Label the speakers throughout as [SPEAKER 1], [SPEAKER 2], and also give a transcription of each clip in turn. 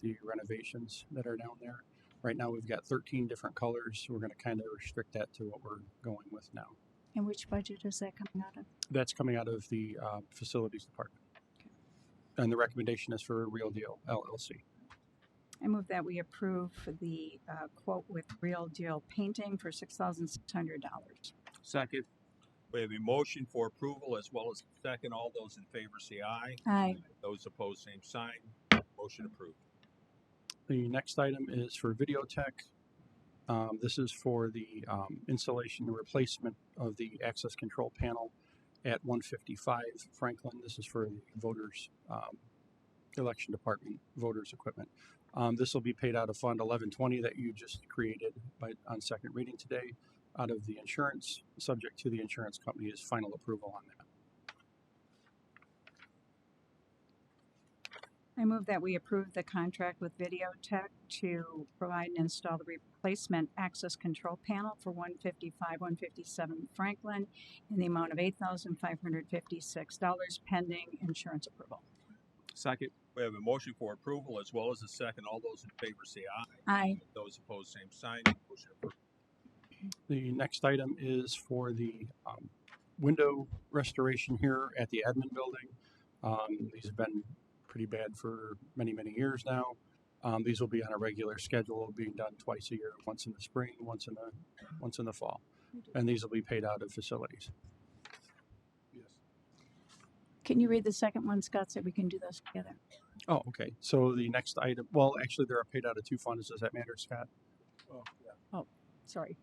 [SPEAKER 1] the renovations that are down there. Right now, we've got thirteen different colors. We're gonna kind of restrict that to what we're going with now.
[SPEAKER 2] And which budget is that coming out of?
[SPEAKER 1] That's coming out of the uh, facilities department. And the recommendation is for Real Deal LLC.
[SPEAKER 2] I move that we approve for the uh, quote with Real Deal Painting for six thousand six hundred dollars.
[SPEAKER 3] Second.
[SPEAKER 4] We have a motion for approval as well as a second. All those in favor say aye.
[SPEAKER 2] Aye.
[SPEAKER 4] Those opposed, same sign. Motion approved.
[SPEAKER 1] The next item is for Videotech. Um, this is for the um, installation and replacement of the access control panel at 155 Franklin. This is for the voters, um, election department, voters equipment. Um, this will be paid out of Fund 1120 that you just created by on second reading today, out of the insurance, subject to the insurance company's final approval on that.
[SPEAKER 2] I move that we approve the contract with Videotech to provide and install the replacement access control panel for one fifty-five, one fifty-seven Franklin in the amount of eight thousand five hundred fifty-six dollars pending insurance approval.
[SPEAKER 3] Second.
[SPEAKER 4] We have a motion for approval as well as a second. All those in favor say aye.
[SPEAKER 2] Aye.
[SPEAKER 4] Those opposed, same sign. Motion approved.
[SPEAKER 1] The next item is for the um, window restoration here at the admin building. Um, These have been pretty bad for many, many years now. Um, These will be on a regular schedule, being done twice a year, once in the spring, once in the, once in the fall. And these will be paid out of facilities.
[SPEAKER 2] Can you read the second one, Scott, so we can do those together?
[SPEAKER 1] Oh, okay. So the next item, well, actually, they're paid out of two funds. Does that matter, Scott?
[SPEAKER 2] Sorry.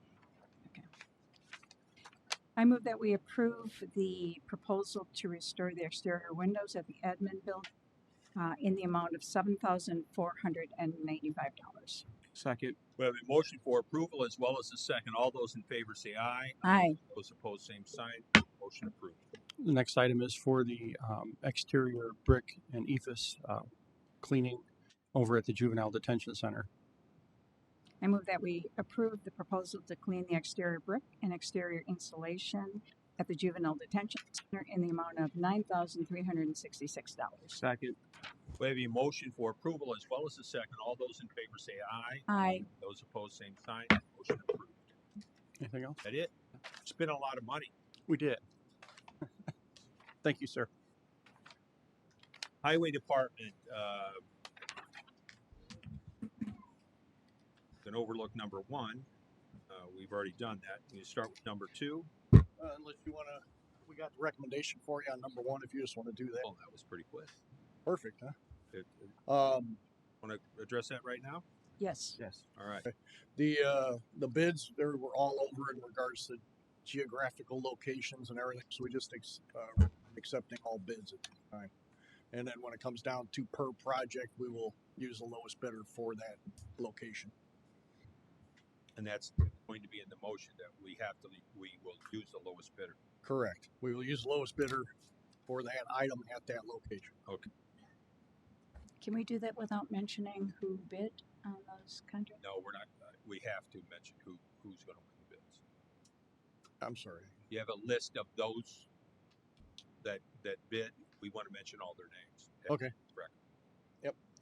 [SPEAKER 2] Okay. I move that we approve the proposal to restore the exterior windows at the admin building uh, in the amount of seven thousand four hundred and ninety-five dollars.
[SPEAKER 3] Second.
[SPEAKER 4] We have a motion for approval as well as a second. All those in favor say aye.
[SPEAKER 2] Aye.
[SPEAKER 4] Those opposed, same sign. Motion approved.
[SPEAKER 1] The next item is for the um, exterior brick and ephes uh, cleaning over at the juvenile detention center.
[SPEAKER 2] I move that we approve the proposal to clean the exterior brick and exterior insulation at the juvenile detention center in the amount of nine thousand three hundred and sixty-six dollars.
[SPEAKER 3] Second.
[SPEAKER 4] We have a motion for approval as well as a second. All those in favor say aye.
[SPEAKER 2] Aye.
[SPEAKER 4] Those opposed, same sign. Motion approved.
[SPEAKER 1] Anything else?
[SPEAKER 4] That it? It's been a lot of money.
[SPEAKER 1] We did. Thank you, sir.
[SPEAKER 4] Highway Department, uh, can overlook number one. Uh, we've already done that. You start with number two.
[SPEAKER 5] Uh, unless you want to, we got the recommendation for you on number one. If you just want to do that,
[SPEAKER 4] Oh, that was pretty quick.
[SPEAKER 5] perfect, huh?
[SPEAKER 4] It-
[SPEAKER 5] Um,
[SPEAKER 4] Want to address that right now?
[SPEAKER 2] Yes.
[SPEAKER 3] Yes.
[SPEAKER 4] All right.
[SPEAKER 5] the uh, the bids there were all over in regards to geographical locations and everything. So we just ex- uh, accepting all bids at the time. And then when it comes down to per project, we will use the lowest bidder for that location.
[SPEAKER 4] And that's going to be in the motion that we have to, we will use the lowest bidder.
[SPEAKER 5] Correct. We will use the lowest bidder for that item at that location.
[SPEAKER 2] Can we do that without mentioning who bid on those contracts?
[SPEAKER 4] No, we're not, uh, we have to mention who, who's going to win the bids.
[SPEAKER 5] I'm sorry.
[SPEAKER 4] You have a list of those that, that bid. We want to mention all their names.
[SPEAKER 5] Okay.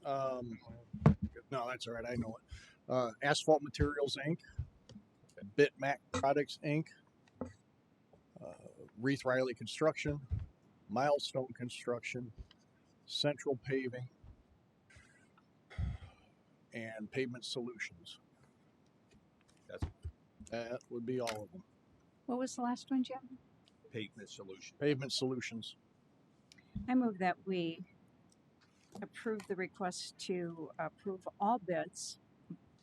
[SPEAKER 5] Um, no, that's all right. I know it. Uh, Asphalt Materials Inc., Bitmac Products Inc., uh, Reith Riley Construction, Milestone Construction, Central Paving, and Pavement Solutions.
[SPEAKER 4] That's-
[SPEAKER 5] That would be all of them.
[SPEAKER 2] What was the last one, Jim?
[SPEAKER 4] Pavement solution.
[SPEAKER 5] Pavement Solutions.
[SPEAKER 2] I move that we approve the request to approve all bids,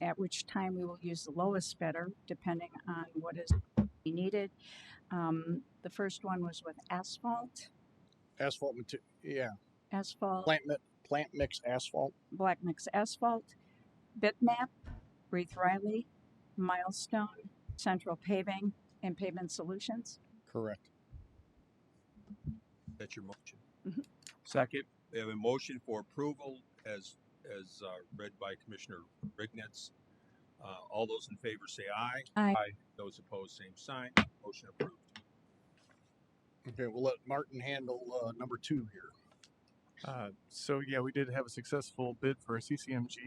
[SPEAKER 2] at which time we will use the lowest bidder, depending on what is needed. Um, the first one was with asphalt,
[SPEAKER 5] Asphalt, mate- yeah,
[SPEAKER 2] asphalt,
[SPEAKER 5] plant, mi- plant mix asphalt.
[SPEAKER 2] black mix asphalt, bitmap, Wreath Riley, milestone, central paving, and pavement solutions.
[SPEAKER 5] Correct.
[SPEAKER 4] That's your motion.
[SPEAKER 3] Second.
[SPEAKER 4] We have a motion for approval as, as uh, read by Commissioner Rignetz. Uh, All those in favor say aye.
[SPEAKER 2] Aye.
[SPEAKER 4] Those opposed, same sign. Motion approved.
[SPEAKER 5] Okay, we'll let Martin handle uh, number two here.
[SPEAKER 6] Uh, so yeah, we did have a successful bid for a CCMG